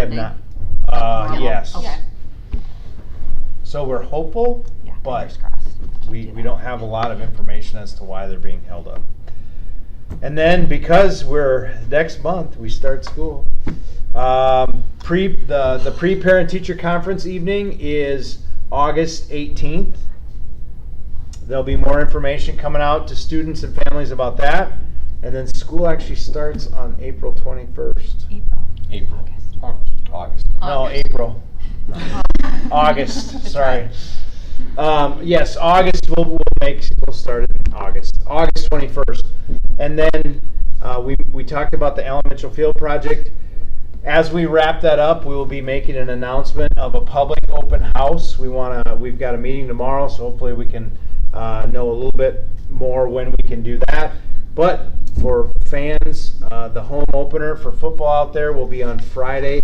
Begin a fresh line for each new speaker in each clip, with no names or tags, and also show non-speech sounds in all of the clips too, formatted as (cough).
have
they-
not. Uh,
Yeah.
yes.
Okay.
So we're hopeful,
Yeah,
but
fingers crossed.
we,
do
we
that.
don't have a lot of information as to why they're being held up. And then because we're, next month, we start school. Um, pre, the, the pre-parent teacher conference evening is August eighteenth. There'll be more information coming out to students and families about that. And then school actually starts on April twenty-first.
April.
April.
August.
Au- August.
No,
August.
April. August,
(laughs)
That's
sorry.
right.
Um, yes, August, we'll, we'll make, we'll start it in August, August twenty-first. And then, uh, we, we talked about the Allen Mitchell Field project. As we wrap that up, we will be making an announcement of a public open house. We wanna, we've got a meeting tomorrow, so hopefully we can, uh, know a little bit more when we can do that. But for fans, uh, the home opener for football out there will be on Friday,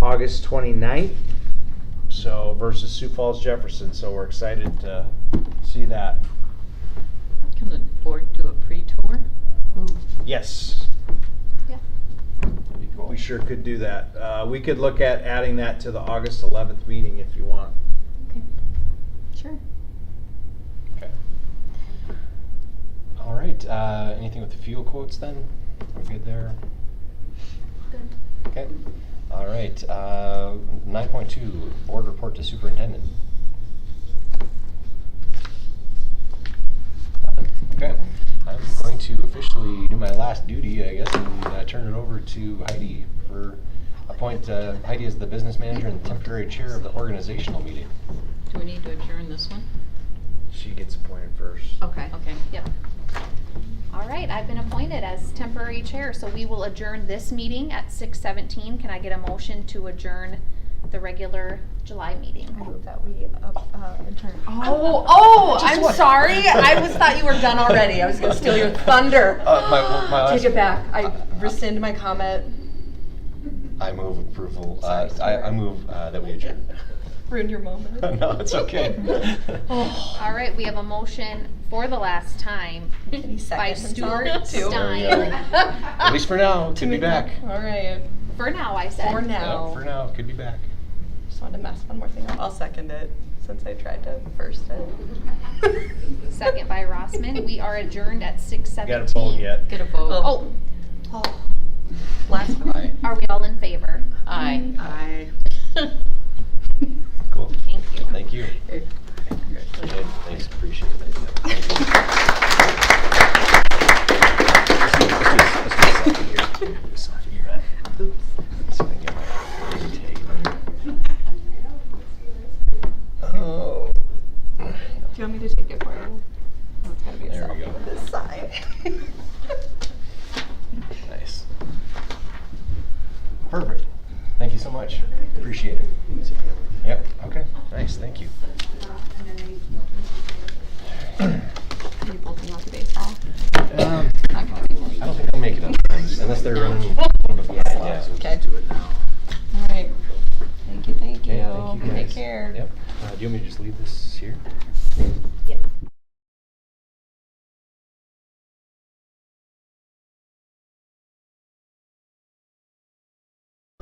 August 29th. So versus Sioux Falls Jefferson, so we're excited to see that.
Can the board do a pre-tour?
Ooh.
Yes,
That'd be cool.
we sure could do that. Uh, we could look at adding that to the August 11th meeting if you want.
Okay. Sure.
Okay. All right, uh, anything with the fuel quotes then? We're good there?
Good.
Okay. All right, uh, nine point two, board report to superintendent. Nothing? Okay, I'm going to officially do my last duty, I guess, and uh, turn it over to Heidi for, appoint uh, Heidi as the business manager and temporary chair of the organizational meeting.
Do we need to adjourn this one?
She gets appointed first.
Okay.
Okay.
Yep. All right, I've been appointed as temporary chair, so we will adjourn this meeting at six seventeen. Can I get a motion to adjourn the regular July meeting?
I move that we uh, uh, adjourn.
Oh, oh,
Just
I'm
one.
sorry. I was thought you were done already. I was going to steal your thunder.
Uh, my- my
Take
last- Uh,
it back. I rescind my comment.
I move approval, uh, I, I move uh, that we adjourn.
Ruined your
(laughs)
moment.
No, it's okay.
All right, we have a motion for the last time
And he
by
seconded
Stuart
(laughs) himself,
(laughs)
too.
Stein.
At least for now, could be back.
All right.
For now, I said.
For
Yeah, For
now.
now, could be back.
Just wanted to mess one more thing up. I'll second it since I tried to first (laughs) it.
Second by Rossman. We are adjourned at six seventeen.
Got a poll yet?
Get a vote.
Oh,
Oh, last one.
are we all in favor?
Aye.
I.
Cool.
Thank you.
Thank you. Okay, Thanks, appreciate it. Thank you. Let's do- let's do- let's do a selfie here. Do a selfie here, right?
Oops.
So I can get my tag. Oh.
Do you want me to take it for you?
Oh, It's gotta be a
There we go.
selfie on this (laughs) side.
Nice. Perfect. Thank you so much. Appreciate it. Yep, okay, nice, thank you.
Are you both going to baseball?
Um,
Not going to be.
I don't think I'll make it on time, unless they're running.
(laughs)
Yeah,
Okay. All right. Thank you, thank
Okay, thank you
you.
guys.
Take care.
Yep. Uh, do you want me to just leave this here?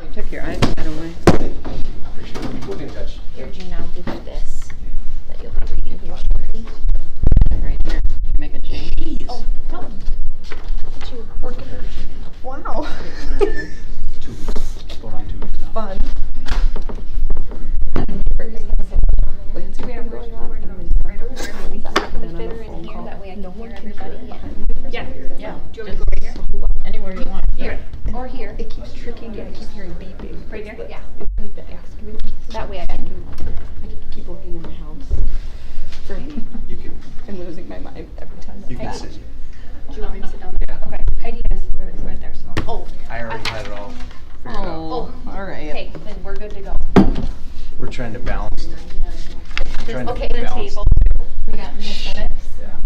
You took your iPad away.
Appreciate it. We'll be in touch.
Here, Gina, I'll give you this that you'll be reading here shortly.
Right here. Make a change.
Oh, no. Look at you working. Wow.
two weeks, going on two weeks now.
Fun.
We have really awkward numbers.
Better in here, that way I can hear everybody.
Yeah, yeah. Do you want me to go right here? Anywhere you want. Here.
Or here,
It keeps tricking me. I keep hearing beeping.
Right here?
yeah,
It's like the excavator.
that way I can.
I keep- keep looking in the house. For me.
You can,
I'm losing my mind every time.
you can sit.
Do you want me to sit down? Okay, Heidi has, it's right there, so.
Oh,
I already had it all figured out.
Oh, all right.
okay, then we're good to go.
We're trying to balance. Trying to
Okay, the
balance.
table.
We got this minutes.
Yeah.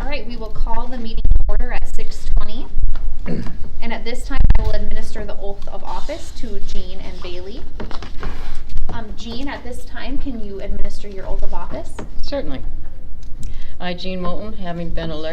All right, we will call the meeting to order at six twenty. (clears throat) And at this time, I will administer the oath of office to Jean and Bailey. Um, Jean, at this time, can you administer your oath of office?
Certainly. I, Jean Moulton, having been elected